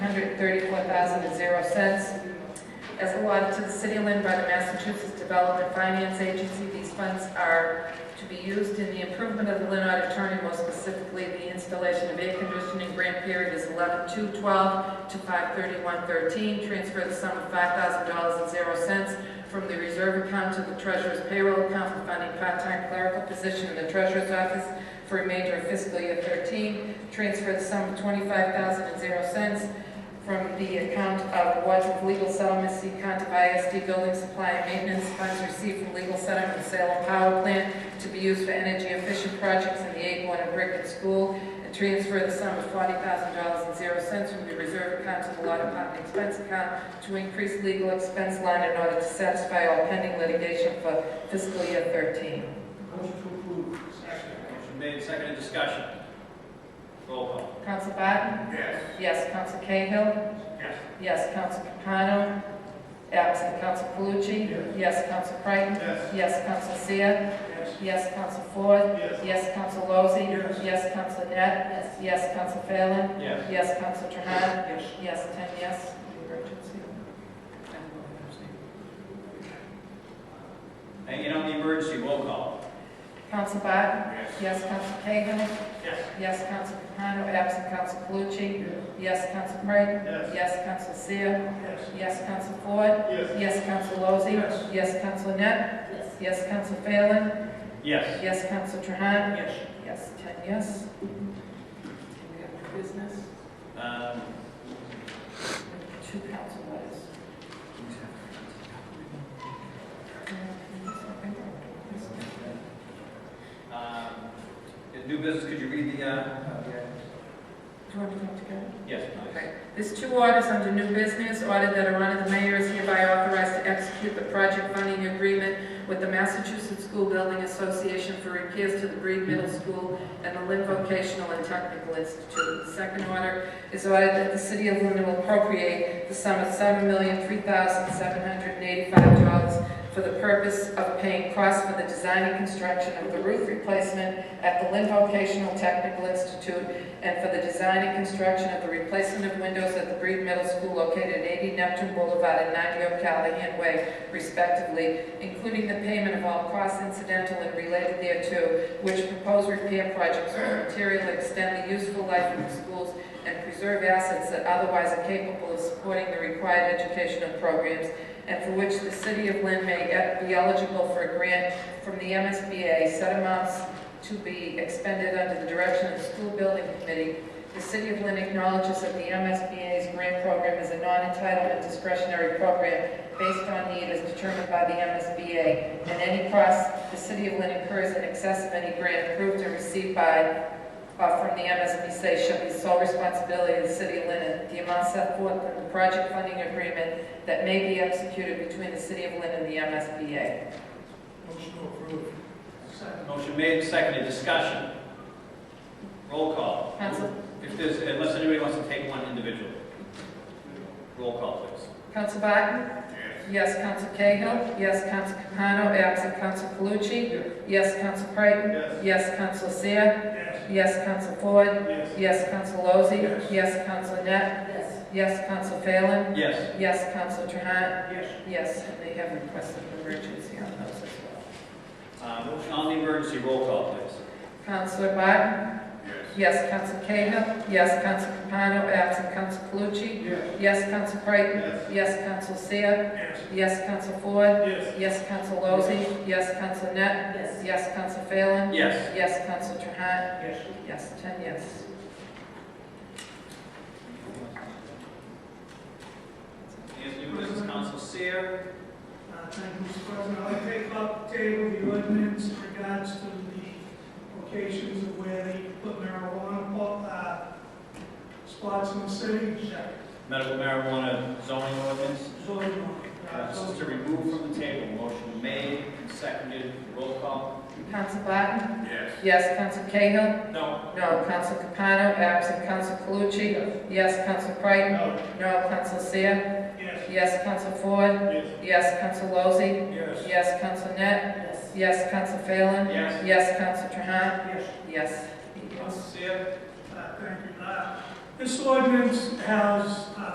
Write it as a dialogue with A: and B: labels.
A: hundred thirty-four thousand and zero cents as allotted to the City of Lynn by the Massachusetts Development Finance Agency. These funds are to be used in the improvement of the Lynn Auditorium, more specifically the installation of air conditioning. Grant period is eleven two twelve to five thirty-one thirteen. Transfer the sum of five thousand dollars and zero cents from the reserve account to the treasurer's payroll account for funding part-time clerical position in the treasurer's office for remainder of fiscal year thirteen. Transfer the sum of twenty-five thousand and zero cents from the account of Wadsworth Legal Settlement, C account of ISD Building Supply and Maintenance funds received from legal settlement and sale of power plant to be used for energy efficient projects in the Acorn and Brickland School, and transfer the sum of forty thousand dollars and zero cents from the reserve account to the law department expense account to increase legal expense line in order to satisfy all pending litigation for fiscal year thirteen.
B: Motion to approve. Second.
C: Motion made, seconded, discussion. Roll call.
A: Counsel Barton?
B: Yes.
A: Yes. Counsel Cahill?
B: Yes.
A: Yes, Counsel Capano. Absent Counsel Calucci.
B: Yes.
A: Yes, Counsel Creighton.
B: Yes.
A: Yes, Counsel Seer.
B: Yes.
A: Yes, Counsel Ford.
B: Yes.
A: Yes, Counsel Lozey.
B: Yes.
A: Yes, Counsel Net. Yes, Counsel Phelan.
C: Yes.
A: Yes, Counsel Trahan.
B: Yes.
A: Yes, ten yes. Emergency.
C: Hang in on the emergency, roll call.
A: Counsel Barton.
B: Yes.
A: Yes, Counsel Cahill.
B: Yes.
A: Yes, Counsel Capano. Absent Counsel Calucci.
B: Yes.
A: Yes, Counsel Creighton.
B: Yes.
A: Yes, Counsel Seer.
B: Yes.
A: Yes, Counsel Ford.
B: Yes.
A: Yes, Counsel Lozey.
B: Yes.
A: Yes, Counsel Net. Yes. Yes, Counsel Phelan.
C: Yes.
A: Yes, Counsel Trahan?
B: Yes.
A: Yes, ten yes. And we have new business,
C: Um,
A: two council letters.
C: um, New business, could you read the, uh, uh, the-
A: Do you want to come together?
C: yes, please.
A: Okay, there's two orders under new business, order that a run of the mayor is hereby authorized to execute the project funding agreement with the Massachusetts School Building Association for repairs to the Breed Middle School and the Lynn Vocational and Technical Institute. The Second order is ordered that the city of Lynn will appropriate the sum of seven million, three thousand, seven hundred and eighty-five dollars for the purpose of paying costs for the design and construction of the roof replacement at the Lynn Vocational Technical Institute and for the design and construction of the replacement of windows at the Breed Middle School located at 80 Neptune Boulevard and 90 O'Callahan Way respectively, including the payment of all costs incidental and related thereto, which proposed repair projects will materially extend the useful life of the schools and preserve assets that otherwise are capable of supporting the required educational programs, and for which the city of Lynn may be eligible for a grant from the MSBA, set amounts to be expended under the direction of the school building committee. The city of Lynn acknowledges that the MSBA's grant program is a non-entitlement discretionary program based on need as determined by the MSBA, and any costs the city of Lynn incurs in excess of any grant approved and received by or from the MSBA shall be sole responsibility of the city of Lynn, and the amount set forth in the project funding agreement that may be executed between the city of Lynn and the MSBA.
B: Motion to approve. Second.
C: Motion made, seconded, discussion. Roll call.
A: Counsel,
C: If there's, unless anybody wants to take one individually. Roll call, please.
A: Counsel Barton?
B: Yes.
A: Yes, Counsel Cahill. Yes, Counsel Capano. Absent Counsel Calucci. Yes, Counsel Creighton.
B: Yes.
A: Yes, Counsel Seer.
B: Yes.
A: Yes, Counsel Ford.
B: Yes.
A: Yes, Counsel Lozey.
B: Yes.
A: Yes, Counsel Net. Yes. Yes, Counsel Phelan.
C: Yes.
A: Yes, Counsel Trahan.
B: Yes.
A: Yes, and they have requested emergency on those as well.
C: Um, On the emergency, roll call, please.
A: Counselor Barton.
B: Yes.
A: Yes, Counsel Cahill. Yes, Counsel Capano. Absent Counsel Calucci.
B: Yes.
A: Yes, Counsel Creighton.
B: Yes.
A: Yes, Counsel Seer.
B: Yes.
A: Yes, Counsel Ford.
B: Yes.
A: Yes, Counsel Lozey. Yes, Counsel Net. Yes. Yes, Counsel Phelan.
C: Yes.
A: Yes, Counsel Trahan.
B: Yes.
A: Yes, ten yes.
C: As new business, Council Seer.
D: Uh, Thank you, Mr. President. I'd like to take up table the ordinance in regards to the locations of where they put marijuana po- uh, spots in the city.
C: Medical marijuana zoning ordinance.
D: Zoning,
C: Uh,
D: uh,
C: This is to
D: zoning.
C: remove from the table. Motion made and seconded. Roll call.
A: Counsel Barton?
B: Yes.
A: Yes, Counsel Cahill?
C: No.
A: No. Counsel Capano, absent Counsel Calucci? Yes, Counsel Creighton?
B: No.
A: No. Counsel Seer?
D: Yes,
A: Yes, Counsel Ford?
B: Yes.
A: Yes, Counsel Lozey?
B: Yes.
A: Yes, Counsel Net?
B: Yes.
A: Yes, Counsel Phelan?
C: Yes.
A: Yes, Counsel Trahan?
D: yes,
A: Yes.
C: Council Seer.
D: Uh, thank you. Uh, This ordinance has, uh,